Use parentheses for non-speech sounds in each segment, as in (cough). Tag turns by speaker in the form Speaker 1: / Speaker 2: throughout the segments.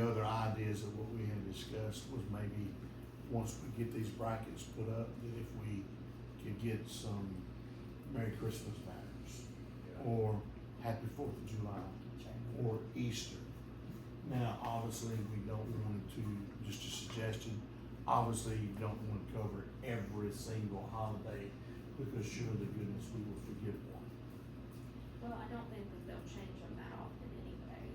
Speaker 1: ideas of what we had discussed was maybe, once we get these brackets put up, that if we could get some Merry Christmas banners, or Happy Fourth of July, or Easter. Now, obviously, we don't want to, just a suggestion, obviously, you don't want to cover every single holiday, because sure to goodness, we will forget one.
Speaker 2: Well, I don't think that they'll change them that often anyway.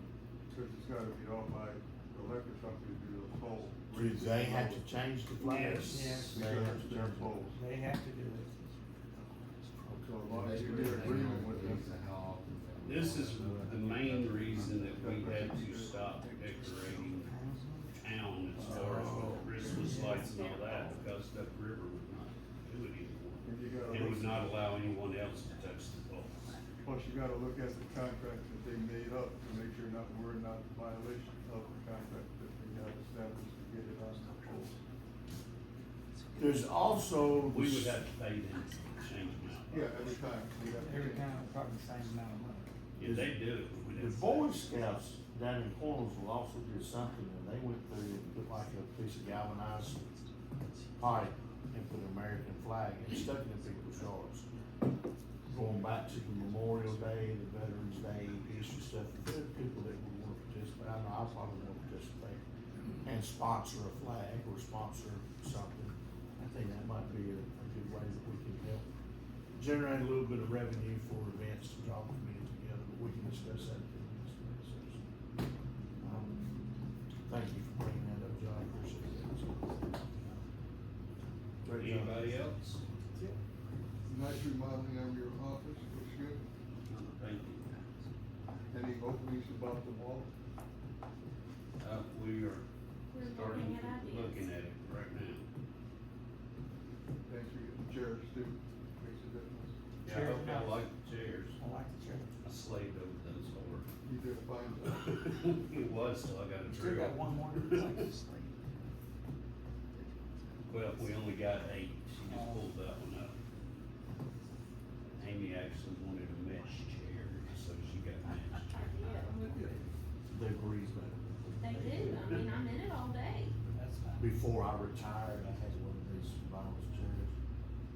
Speaker 3: Cause it's gotta be off by the liquor company to do the poll.
Speaker 1: Do they have to change the flags?
Speaker 4: Yes.
Speaker 1: They have to turn poll.
Speaker 4: They have to do it.
Speaker 3: So a lot of you are agreeing with them.
Speaker 5: This is the main reason that we had to stop decorating town as far as with Christmas lights and all that, because Duck River would not do it anymore.
Speaker 3: And you gotta,
Speaker 5: It would
Speaker 3: look-
Speaker 5: not allow anyone else to touch the poles.
Speaker 3: plus you gotta look at the contract that they made up to make sure not, we're not in violation of the contract that they have established to get it on the poll.
Speaker 1: There's also.
Speaker 5: We would have to pay them to change them out.
Speaker 3: Yeah, every time. they have to
Speaker 4: Every
Speaker 3: change.
Speaker 4: time, probably the same amount of money.
Speaker 5: If they do it, we would
Speaker 1: The
Speaker 5: have. to
Speaker 1: Boy
Speaker 5: pay.
Speaker 1: Scouts down in Cornersville also did something, and they went through and put like a piece of galvanized pipe and put an American flag and stuck it in people's yards. Going back to the Memorial Day, the Veterans Day, Easter stuff, there are people that would want to participate, I know I probably want to participate, and sponsor a flag or sponsor something. I think that might be a, a good way that we can help generate a little bit of revenue for events to draw the community together, but we can discuss that in the next meeting session. Um, Thank you for bringing that up, John, I appreciate that. Great job.
Speaker 5: Anybody else?
Speaker 3: Nice remodeling of your office, looks good.
Speaker 5: Thank you.
Speaker 3: Any openings above the wall?
Speaker 5: Uh, we are
Speaker 2: We're looking
Speaker 5: starting,
Speaker 2: at ideas.
Speaker 5: looking at it right now.
Speaker 3: Thanks for getting the chairs too, makes a difference.
Speaker 5: Yeah, I hope I like the chairs.
Speaker 4: I like the church.
Speaker 5: I slaved over those hard.
Speaker 3: You did a fine job.
Speaker 5: It was till I got a
Speaker 4: Still
Speaker 5: drill.
Speaker 4: got one
Speaker 5: (laughs)
Speaker 4: more.
Speaker 5: Well, we only got eight, she just pulled that one up. Amy actually wanted a mesh chair, so she got a mesh.
Speaker 2: I did.
Speaker 1: They breathe better.
Speaker 2: They do, I mean, I'm in it all day.
Speaker 4: That's fine.
Speaker 1: Before I retired, I had one of these vinyl chairs,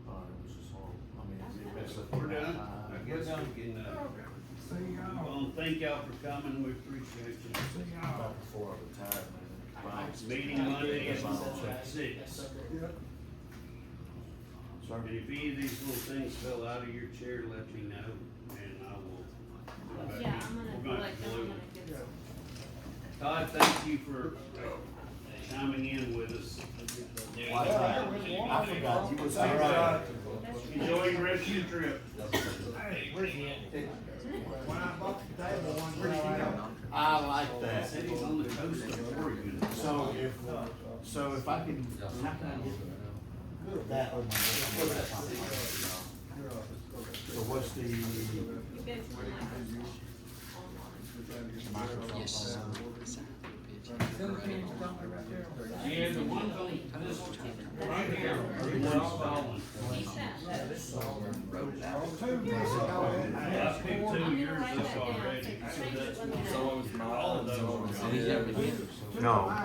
Speaker 1: uh, it was just horrible, I mean, it messed up.
Speaker 5: We're
Speaker 1: my
Speaker 5: done,
Speaker 1: time.
Speaker 5: I guess we can, uh, move on. thank y'all for coming, we appreciate you.
Speaker 1: About before I retired, man. Right.
Speaker 5: Meeting Monday at six.
Speaker 3: Yep.
Speaker 1: Sorry.
Speaker 5: And if any of these little things fell out of your chair, let me know, and I will. go back.
Speaker 2: Yeah, I'm
Speaker 5: We're
Speaker 2: gonna
Speaker 5: gonna
Speaker 2: collect them,
Speaker 5: glue
Speaker 2: I'm
Speaker 5: it.
Speaker 2: gonna give
Speaker 3: Yeah.
Speaker 2: some.
Speaker 5: Todd, thank you for chiming in with us.
Speaker 1: I forgot you was.
Speaker 3: Thanks, Todd.
Speaker 2: That's your-
Speaker 5: Enjoy the rest of your trip.
Speaker 6: When I bought the table one time,
Speaker 1: I like
Speaker 5: That
Speaker 1: that.
Speaker 5: city's on the coast of Oregon.
Speaker 1: So if, so if I can, how can I get that? on my-
Speaker 3: Your office, okay.
Speaker 1: So what's the
Speaker 2: You go to my house online.
Speaker 3: Yes.
Speaker 5: Yeah, the ones on this one, right here, everyone's following.
Speaker 2: He's found those.
Speaker 5: I picked
Speaker 2: I'm
Speaker 5: two
Speaker 2: gonna
Speaker 5: years
Speaker 2: write
Speaker 5: up
Speaker 2: that down,
Speaker 5: already,
Speaker 2: so
Speaker 5: so
Speaker 2: change it
Speaker 5: that's,
Speaker 2: when we have it.
Speaker 5: all of those are gone.
Speaker 6: Yeah.
Speaker 1: No.